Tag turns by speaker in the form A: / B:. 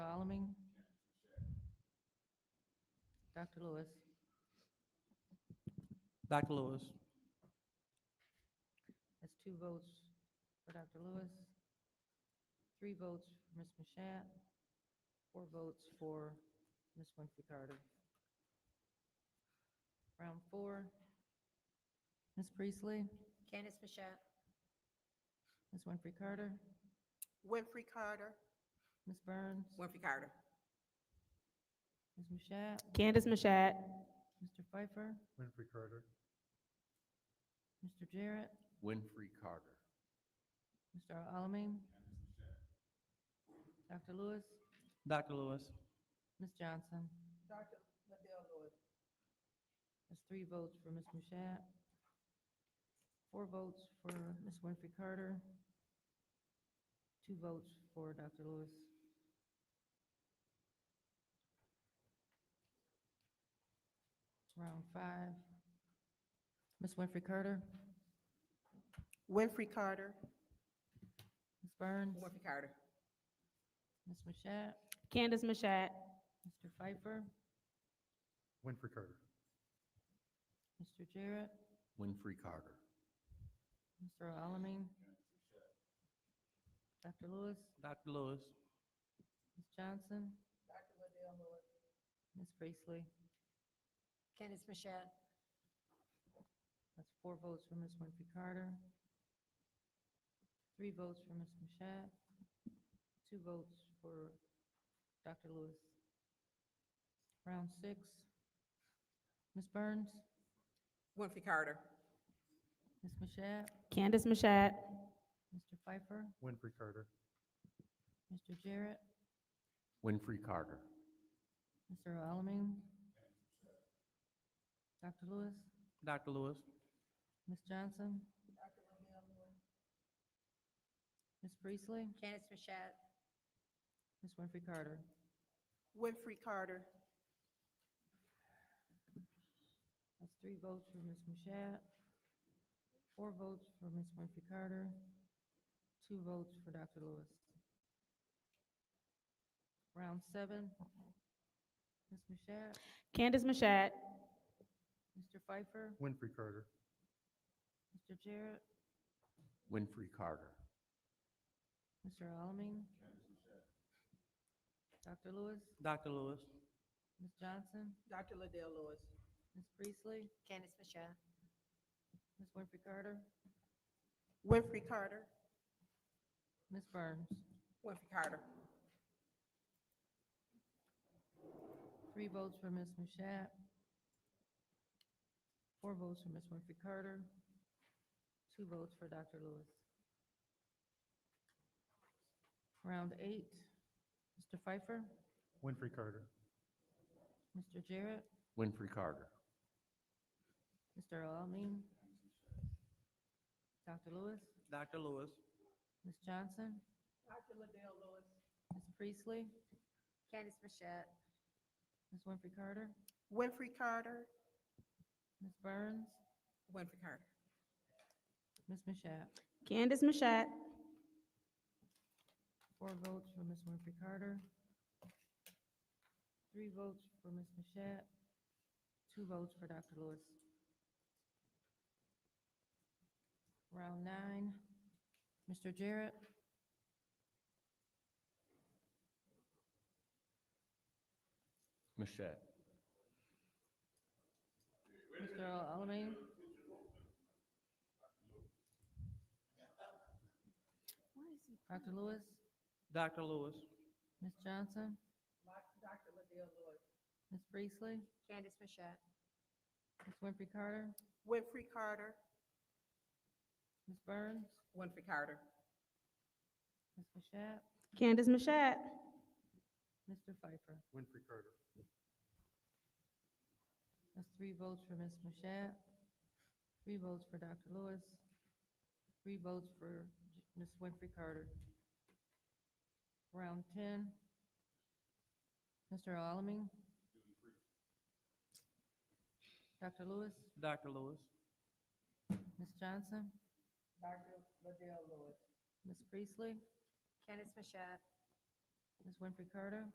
A: Dr. Lewis.
B: Dr. Lewis.
A: That's two votes for Dr. Lewis, three votes for Ms. Mashat, four votes for Ms. Winfrey Carter. Round four. Ms. Priestley,
C: Candace Mashat.
A: Ms. Winfrey Carter,
D: Winfrey Carter.
A: Ms. Burns,
D: Winfrey Carter.
A: Ms. Mashat,
C: Candace Mashat.
A: Mr. Pfeiffer,
E: Winfrey Carter.
A: Mr. Jarrett,
E: Winfrey Carter.
A: Mr. Alamin. Dr. Lewis,
B: Dr. Lewis.
A: Ms. Johnson.
D: Dr. Liddell Lewis.
A: That's three votes for Ms. Mashat, four votes for Ms. Winfrey Carter, two votes for Dr. Lewis. Round five. Ms. Winfrey Carter,
D: Winfrey Carter.
A: Ms. Burns,
D: Carter.
A: Ms. Mashat,
C: Candace Mashat.
A: Mr. Pfeiffer,
E: Winfrey Carter.
A: Mr. Jarrett,
E: Winfrey Carter.
A: Mr. Alamin, Dr. Lewis,
B: Dr. Lewis.
A: Ms. Johnson. Dr. Liddell Lewis. Ms. Priestley.
C: Candace Mashat.
A: That's four votes for Ms. Winfrey Carter, three votes for Ms. Mashat, two votes for Dr. Lewis. Round six. Ms. Burns,
D: Winfrey Carter.
A: Ms. Mashat,
C: Candace Mashat.
A: Mr. Pfeiffer,
E: Winfrey Carter.
A: Mr. Jarrett,
E: Winfrey Carter.
A: Mr. Alamin, Dr. Lewis,
B: Dr. Lewis.
A: Ms. Johnson, Ms. Priestley,
C: Candace Mashat.
A: Ms. Winfrey Carter.
D: Winfrey Carter.
A: That's three votes for Ms. Mashat, four votes for Ms. Winfrey Carter, two votes for Dr. Lewis. Round seven. Ms. Mashat,
C: Candace Mashat.
A: Mr. Pfeiffer,
E: Winfrey Carter.
A: Mr. Jarrett,
E: Winfrey Carter.
A: Mr. Alamin. Dr. Lewis,
B: Dr. Lewis.
A: Ms. Johnson,
D: Dr. Liddell Lewis.
A: Ms. Priestley,
C: Candace Mashat.
A: Ms. Winfrey Carter,
D: Winfrey Carter.
A: Ms. Burns.
D: Winfrey Carter.
A: Three votes for Ms. Mashat. Four votes for Ms. Winfrey Carter. Two votes for Dr. Lewis. Round eight, Mr. Pfeiffer,
E: Winfrey Carter.
A: Mr. Jarrett,
E: Winfrey Carter.
A: Mr. Alamin, Dr. Lewis,
B: Dr. Lewis.
A: Ms. Johnson,
D: Dr. Liddell Lewis.
A: Ms. Priestley,
C: Candace Mashat.
A: Ms. Winfrey Carter,
D: Winfrey Carter.
A: Ms. Burns,
D: Winfrey Carter.
A: Ms. Mashat.
C: Candace Mashat.
A: Four votes for Ms. Winfrey Carter. Three votes for Ms. Mashat. Two votes for Dr. Lewis. Round nine, Mr. Jarrett.
E: Mashat.
A: Mr. Alamin. Dr. Lewis,
B: Dr. Lewis.
A: Ms. Johnson. Dr. Liddell Lewis. Ms. Priestley,
C: Candace Mashat.
A: Ms. Winfrey Carter,
D: Winfrey Carter.
A: Ms. Burns,
D: Winfrey Carter.
A: Ms. Mashat,
C: Candace Mashat.
A: Mr. Pfeiffer.
E: Winfrey Carter.
A: That's three votes for Ms. Mashat, three votes for Dr. Lewis, three votes for J- Ms. Winfrey Carter. Round ten. Mr. Alamin. Dr. Lewis,
B: Dr. Lewis.
A: Ms. Johnson,
D: Dr. Liddell Lewis.
A: Ms. Priestley,
C: Candace Mashat.
A: Ms. Winfrey Carter,